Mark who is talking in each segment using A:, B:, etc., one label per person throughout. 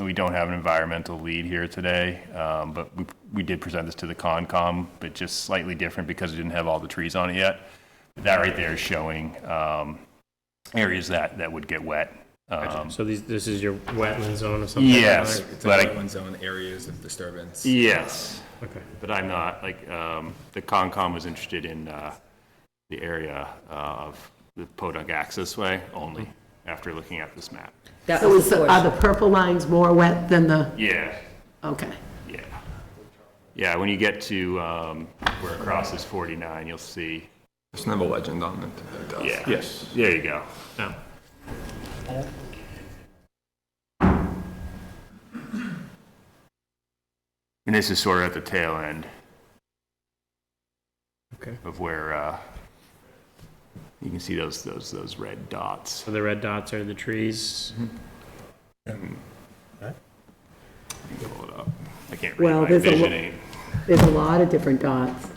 A: We don't have an environmental lead here today, um, but we, we did present this to the Concom, but just slightly different because it didn't have all the trees on it yet. That right there is showing um, areas that, that would get wet. Um,
B: So these, this is your wetland zone or something? like
A: Yes,
B: that?
A: but I,
C: wetland zone areas of disturbance.
A: yes,
B: Okay.
A: but I'm not, like, um, the Concom was interested in uh, the area uh, of the Podunk Access Way only after looking at this map.
D: That
E: So
D: was
E: is
D: the
E: the, are the
D: portion.
E: purple lines more wet than the,
A: Yeah,
E: okay.
A: Yeah. Yeah, when you get to um, where it crosses 49, you'll see.
C: There's never a legend on it. that does.
A: Yeah. Yes. There you go.
B: Now,
A: And this is sort of at the tail end
B: okay.
A: of where uh, you can see those those those red dots.
B: So the red dots are the trees.
A: Mm-hmm. Pull it up. I can't read
E: Well,
A: my
E: there's a lo-
A: vision. aid.
E: There's a lot of different dots.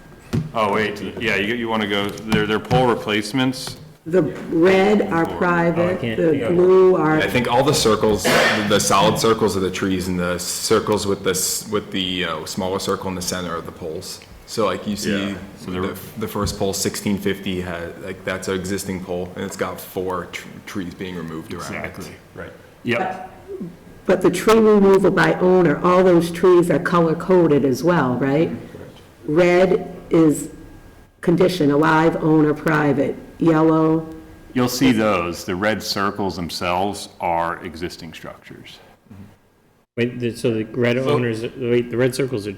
A: Oh wait, yeah, you you want to go? They're they're pole replacements.
E: The red are
B: I
E: private,
B: can't-
E: the blue are,
C: I think all the circles, the solid circles are the trees, and the circles with this, with the uh, smaller circle in the center are the poles. So like you see,
A: Yeah. So they're-
C: the, the first pole, sixteen fifty, had, like, that's an existing pole, and it's got four tr- trees being removed around it.
A: Right. Yep.
E: but the tree removal by owner, all those trees are color-coded as well, right? Red is condition, alive, owner, private. Yellow,
A: You'll see those. The red circles themselves are existing structures.
B: Wait, the- so the red owners, wait, the red circles are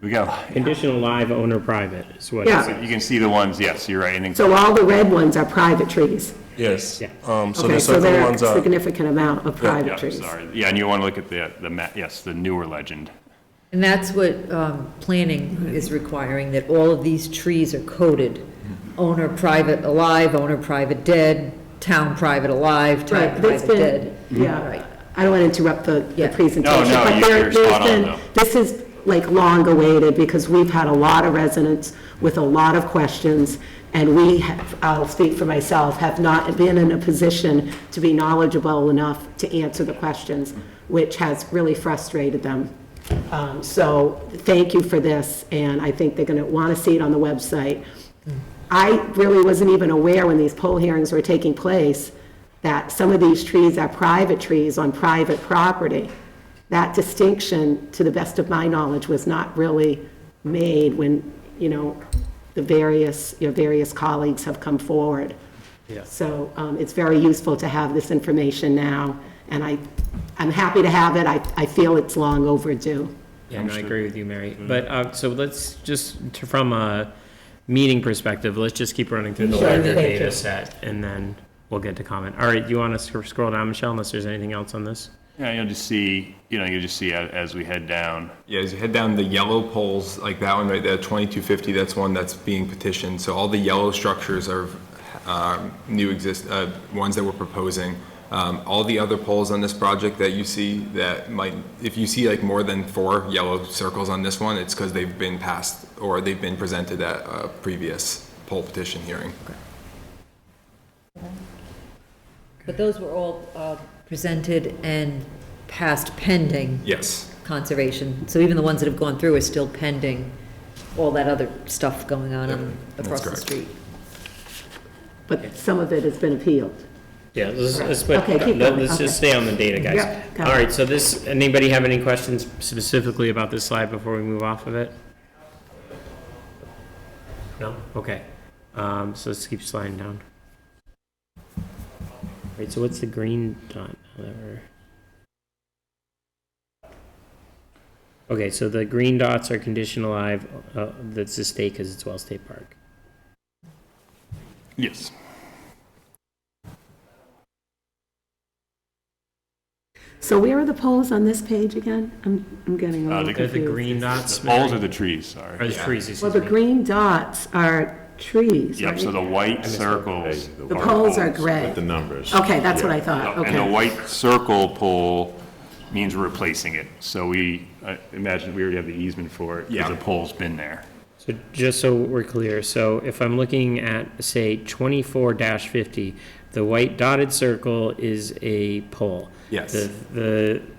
A: We got.
B: conditional live owner private is what
E: Yeah.
B: it's.
A: You can see the ones. Yes, you're right. And then-
E: so all the red ones are private trees.
F: Yes.
B: Yeah.
F: Um, so
E: Okay,
F: the
E: so
F: circle
E: there are a
F: ones are,
E: significant amount of
A: Yeah,
E: private trees.
A: sorry. Yeah, and you want to look at the, the ma, yes, the newer legend.
D: And that's what um, planning is requiring, that all of these trees are coded. Owner private alive, owner private dead, town private alive,
E: Right,
D: town
E: that's
D: private
E: been,
D: dead. Right.
E: yeah, I don't want to interrupt the, the
D: Yeah.
E: presentation.
A: No, no,
E: but
A: you-
E: there-
A: you're
E: there's
A: spot on,
E: been-
A: though.
E: This is like long awaited because we've had a lot of residents with a lot of questions. And we have, I'll speak for myself, have not been in a position to be knowledgeable enough to answer the questions, which has really frustrated them. Um, So thank you for this, and I think they're going to want to see it on the website. I really wasn't even aware when these poll hearings were taking place that some of these trees are private trees on private property. That distinction, to the best of my knowledge, was not really made when, you know, the various, your various colleagues have come forward. So um, it's very useful to have this information now, and I, I'm happy to have it. I, I feel it's long overdue.
B: Yeah, no, I agree with you, Mary.
A: Mm-hmm.
B: But, uh, so let's just, to- from a meeting perspective, let's just keep running through the
E: Sure,
B: larger
E: thank you.
B: data set and then we'll get to comment. All right, you want us to scroll down, Michelle, unless there's anything else on this?
A: Yeah, you'll just see, you know, you'll just see a- as we head down.
C: Yeah, as you head down the yellow poles, like that one right there, 2250, that's one that's being petitioned. So all the yellow structures are um, new exist, uh, ones that we're proposing. Um, All the other poles on this project that you see that might, if you see like more than four yellow circles on this one, it's because they've been passed or they've been presented at a previous poll petition hearing.
D: But those were all uh, presented and passed pending
C: Yes.
D: conservation. So even the ones that have gone through are still pending all that other stuff going on in-
C: that's
D: across the
C: correct.
D: street.
E: But some of it has been appealed.
B: Yeah, let's, let's, but,
E: Okay, keep
B: let-
E: going,
B: let's just stay on the data, guys.
E: Yeah, got
B: All
E: it.
B: right, so this, anybody have any questions specifically about this slide before we move off of it? No? Okay. Um, so let's keep sliding down. All right, so what's the green dot? now that we're- Okay, so the green dots are conditional live, uh, that's the state, because it's Wells State Park.
A: Yes.
E: So where are the polls on this page again? I'm, I'm getting a
A: Uh,
E: little
A: the-
B: They're the
E: confused.
B: green dots,
A: Poles are
B: Mary?
A: the trees,
B: Or
A: sorry.
B: the trees, excuse
E: Well, the
B: me.
E: green dots are trees,
A: Yep, so
E: right?
A: the white circles.
E: The poles are gray.
F: the numbers.
E: Okay, that's what I thought,
A: And the
E: okay.
A: white circle pole means we're replacing it. So we, I imagine we already have the easement for it because
C: Yeah.
A: the pole's been there.
B: So just so we're clear, so if I'm looking at, say, twenty-four fifty, the white dotted circle is a pole.
C: Yes.
B: The, the